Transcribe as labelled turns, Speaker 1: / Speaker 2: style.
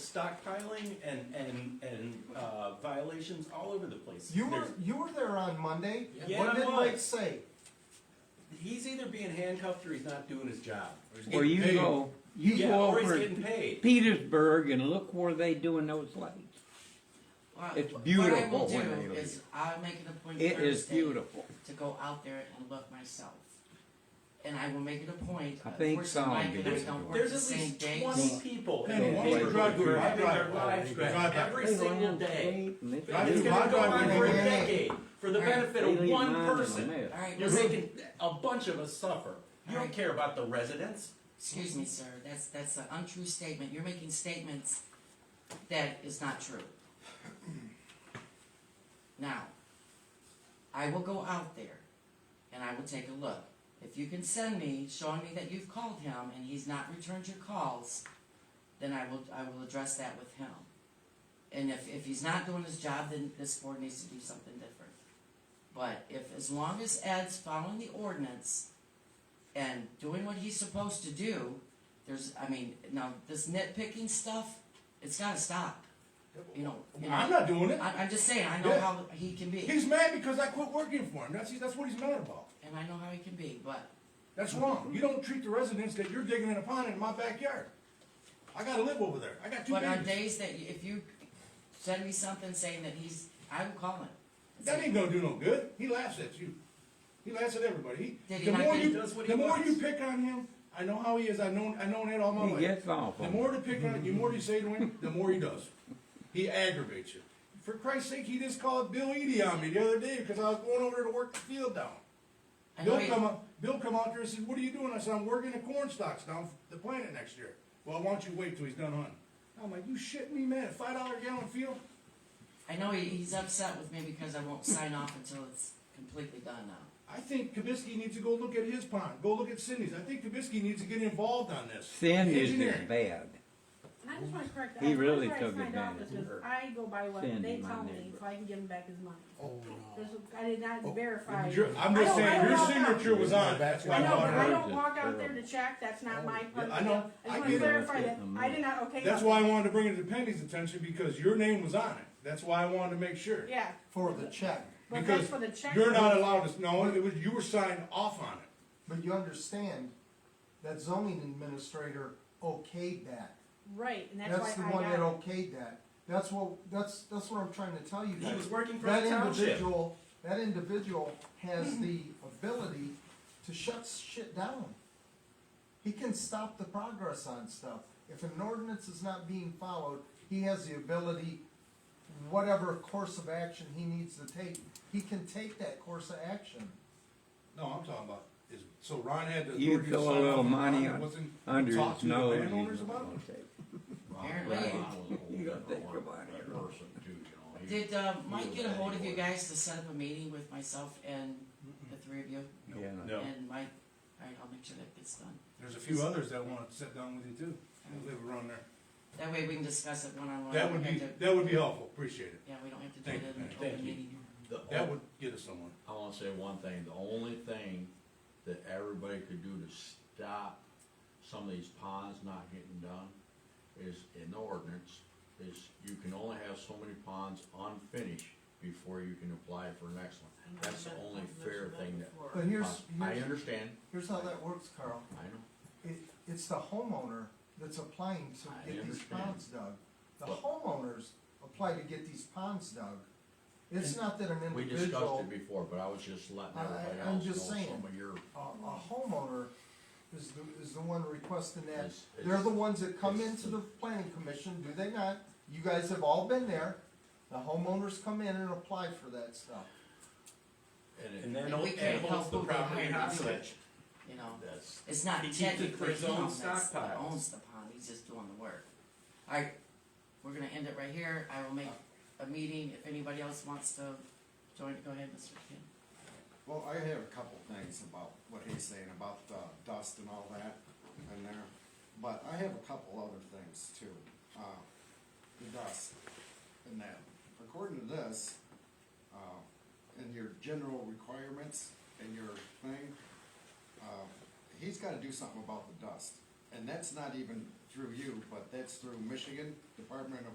Speaker 1: stockpiling and, and, and uh, violations all over the place.
Speaker 2: You were,
Speaker 1: There's-
Speaker 2: you were there on Monday,
Speaker 1: Yeah,
Speaker 2: what
Speaker 1: I
Speaker 2: did
Speaker 1: was.
Speaker 2: Mike say?
Speaker 1: He's either being handcuffed or he's not doing his job.
Speaker 3: Or you go, you
Speaker 1: Yeah,
Speaker 3: go
Speaker 1: or he's
Speaker 3: over
Speaker 1: getting
Speaker 3: to
Speaker 1: paid.
Speaker 3: Petersburg and look where they doing those lights.
Speaker 4: Well,
Speaker 3: It's
Speaker 4: What I will
Speaker 3: beautiful Oh,
Speaker 4: do
Speaker 3: when they leave.
Speaker 4: is I'll make it a point
Speaker 3: It
Speaker 4: Thursday
Speaker 3: is beautiful.
Speaker 4: to go out there and look myself. And I will make it a point.
Speaker 3: I think
Speaker 4: Unfortunately,
Speaker 3: some
Speaker 4: Mike
Speaker 3: will
Speaker 4: and
Speaker 3: be
Speaker 4: I
Speaker 3: doing
Speaker 4: don't
Speaker 3: it.
Speaker 4: work
Speaker 1: There's
Speaker 4: the
Speaker 1: at
Speaker 4: same
Speaker 1: least
Speaker 4: days.
Speaker 1: twenty people
Speaker 5: Man,
Speaker 1: in
Speaker 3: one
Speaker 1: Petersburg
Speaker 3: drive
Speaker 1: who are
Speaker 3: through
Speaker 1: having
Speaker 5: my
Speaker 1: their
Speaker 5: driveway.
Speaker 1: lives
Speaker 5: Drive
Speaker 1: crashed
Speaker 5: back.
Speaker 1: every
Speaker 3: They
Speaker 1: single
Speaker 3: land
Speaker 1: day.
Speaker 3: straight and they-
Speaker 5: Drive
Speaker 1: It's
Speaker 5: through
Speaker 1: gonna
Speaker 5: my
Speaker 1: go on
Speaker 5: driveway
Speaker 1: for a
Speaker 5: and they land.
Speaker 1: decade, for the benefit
Speaker 3: they
Speaker 1: of
Speaker 3: leave
Speaker 1: one
Speaker 3: mine in the
Speaker 1: person.
Speaker 3: mess.
Speaker 4: All right,
Speaker 1: You're
Speaker 4: listen,
Speaker 1: making a bunch of us suffer. You don't care about the residents.
Speaker 4: excuse me, sir. That's that's an untrue statement. You're making statements that is not true. Now, I will go out there and I will take a look. If you can send me showing me that you've called him and he's not returned your calls, then I will I will address that with him. And if, if he's not doing his job, then this board needs to do something different. But if as long as Ed's following the ordinance and doing what he's supposed to do, there's I mean, now this nitpicking stuff, it's gotta stop. You know, you know
Speaker 5: I'm not doing it.
Speaker 4: I, I'm just saying, I know
Speaker 5: Yeah.
Speaker 4: how he can be,
Speaker 5: He's mad because I quit working for him. That's that's what he's mad about.
Speaker 4: and I know how he can be, but
Speaker 5: That's
Speaker 3: Mm-hmm.
Speaker 5: wrong. You don't treat the residents that you're digging in a pond in my backyard. I gotta live over there. I got two
Speaker 4: but on
Speaker 5: babies.
Speaker 4: days that you- if you send me something saying that he's, I will call him. It's
Speaker 5: That
Speaker 4: like,
Speaker 5: ain't gonna do no good. He laughs at you. He laughs at everybody.
Speaker 4: Did
Speaker 5: He,
Speaker 4: he
Speaker 5: the
Speaker 4: not
Speaker 5: more
Speaker 4: get-
Speaker 1: He
Speaker 5: you,
Speaker 1: does what he
Speaker 5: the more
Speaker 1: wants.
Speaker 5: you pick on him, I know how he is. I know I known it all my
Speaker 3: He
Speaker 5: life.
Speaker 3: gets off
Speaker 5: The
Speaker 3: on
Speaker 5: more to pick on, the more you say to him, the more he does. He aggravates you. For Christ's sake, he just called Bill Eady on me the other day because I was going over there to work the field down.
Speaker 4: I know
Speaker 5: Bill
Speaker 4: he-
Speaker 5: come up, Bill come out there and said, what are you doing? I said, I'm working the corn stalks down the planet next year. Well, why don't you wait till he's done hunting? I'm like, you shitting me, man? Five dollar gallon field?
Speaker 4: I know he, he's upset with me because I won't sign off until it's completely done now.
Speaker 5: I think Kibisky needs to go look at his pond. Go look at Cindy's. I think Kibisky needs to get involved on this.
Speaker 3: Sin is
Speaker 5: Engineering.
Speaker 3: just bad.
Speaker 6: I just wanna correct that.
Speaker 3: He
Speaker 6: I
Speaker 3: really
Speaker 6: tried to
Speaker 3: took
Speaker 6: find out
Speaker 3: advantage of
Speaker 6: this,
Speaker 3: her.
Speaker 6: I go by what
Speaker 3: Sandy,
Speaker 6: they
Speaker 3: my
Speaker 6: tell me,
Speaker 3: neighbor.
Speaker 6: so I can give him back his money.
Speaker 7: Oh, no.
Speaker 6: This, I did not verify.
Speaker 5: Your- I'm Oh, just
Speaker 6: I don't- I
Speaker 5: saying,
Speaker 6: don't
Speaker 5: your
Speaker 6: walk out-
Speaker 5: signature was on it. That's why
Speaker 6: I
Speaker 5: I
Speaker 6: know,
Speaker 5: bought
Speaker 6: but I
Speaker 5: it.
Speaker 6: don't walk out there to check, that's not my part
Speaker 5: Oh, yeah, I
Speaker 6: of the
Speaker 5: know.
Speaker 6: deal. I
Speaker 5: I
Speaker 6: just
Speaker 5: get
Speaker 6: wanna
Speaker 5: it.
Speaker 6: verify that,
Speaker 3: Getting the
Speaker 6: I did not okay.
Speaker 5: That's
Speaker 6: that.
Speaker 5: why I wanted to bring it to Penny's attention because your name was on it. That's why I wanted to make sure.
Speaker 6: Yeah,
Speaker 2: For the check,
Speaker 6: but
Speaker 5: Because
Speaker 6: that's for the check.
Speaker 5: You're not allowed to, no, it was, you were signed off on it.
Speaker 2: but you understand that zoning administrator okayed that.
Speaker 6: Right, and that's
Speaker 2: That's the
Speaker 6: why I
Speaker 2: one that
Speaker 6: got it.
Speaker 2: okayed that. That's what, that's, that's what I'm trying to tell you
Speaker 1: He
Speaker 2: guys.
Speaker 1: was working for
Speaker 2: That
Speaker 1: the township.
Speaker 2: individual, that individual has
Speaker 6: Mm-hmm.
Speaker 2: the ability to shut shit down. He can stop the progress on stuff. If an ordinance is not being followed, he has the ability, whatever course of action he needs to take, he can take that course of action.
Speaker 5: No, I'm talking about is, so Ron had the.
Speaker 3: You
Speaker 5: authority to
Speaker 3: throw
Speaker 5: sign off
Speaker 3: a little
Speaker 5: on the bond
Speaker 3: money
Speaker 5: and
Speaker 3: on-
Speaker 5: wasn't-
Speaker 3: under
Speaker 5: talk
Speaker 3: his
Speaker 5: to the
Speaker 3: nose. he's
Speaker 5: landowners
Speaker 3: not
Speaker 5: about
Speaker 3: gonna
Speaker 5: it?
Speaker 3: take it.
Speaker 4: Apparently,
Speaker 3: You gotta think about it.
Speaker 4: did uh, Mike get a hold of you guys to set up a meeting with myself and the three of you?
Speaker 3: Yeah.
Speaker 1: No.
Speaker 4: And Mike, all right, I'll make sure that gets done.
Speaker 5: There's a few others that wanna sit down with you too, that live around there.
Speaker 4: That way we can discuss it one on one.
Speaker 5: That would be, that would be helpful, appreciate it.
Speaker 4: Yeah, we don't have to do
Speaker 5: Thank
Speaker 4: it
Speaker 5: you,
Speaker 4: in an
Speaker 1: thank
Speaker 4: open
Speaker 1: you.
Speaker 4: meeting.
Speaker 5: That would get us somewhere.
Speaker 8: I wanna say one thing, the only thing that everybody could do to stop some of these ponds not getting done is in the ordinance, is you can only have so many ponds unfinished before you can apply for the next one. That's the only fair thing that.
Speaker 2: But here's,
Speaker 8: I
Speaker 2: here's,
Speaker 8: understand,
Speaker 2: here's how that works, Carl.
Speaker 8: I know.
Speaker 2: It, it's the homeowner that's applying
Speaker 8: I
Speaker 2: to get these
Speaker 8: understand.
Speaker 2: ponds dug. The
Speaker 8: But-
Speaker 2: homeowners apply to get these ponds dug. It's not that an
Speaker 8: We discussed
Speaker 2: individual,
Speaker 8: it before, but I was just letting
Speaker 2: I- I-
Speaker 8: everybody
Speaker 2: I'm
Speaker 8: else know
Speaker 2: just saying.
Speaker 8: some of your,
Speaker 2: a, a homeowner is the, is the one requesting that.
Speaker 8: It's-
Speaker 2: They're
Speaker 8: it's-
Speaker 2: the ones that come
Speaker 8: it's
Speaker 2: into
Speaker 8: the-
Speaker 2: the planning commission, do they not? You guys have all been there. The homeowners come in and apply for that stuff.
Speaker 1: And
Speaker 8: and it,
Speaker 1: then
Speaker 4: And we
Speaker 1: it
Speaker 4: can't
Speaker 1: holds
Speaker 4: help
Speaker 1: the
Speaker 4: who they
Speaker 1: property
Speaker 4: hire to do
Speaker 1: hostage.
Speaker 4: it, you know.
Speaker 8: that's,
Speaker 4: It's not
Speaker 1: He keeps it for
Speaker 4: technically
Speaker 1: his
Speaker 4: him
Speaker 1: own
Speaker 4: that's, that
Speaker 1: stockpiles.
Speaker 4: owns the pond, he's just doing the work. Alright, we're gonna end it right here, I will make
Speaker 1: Uh.
Speaker 4: a meeting, if anybody else wants to join, go ahead, Mr. Kim.
Speaker 7: Well, I have a couple things about what he's saying about the dust and all that in there, but I have a couple other things too. Uh, the dust and that. According to this, uh, in your general requirements and your thing, uh, he's gotta do something about the dust.
Speaker 2: and that's not even through you, but that's through Michigan Department of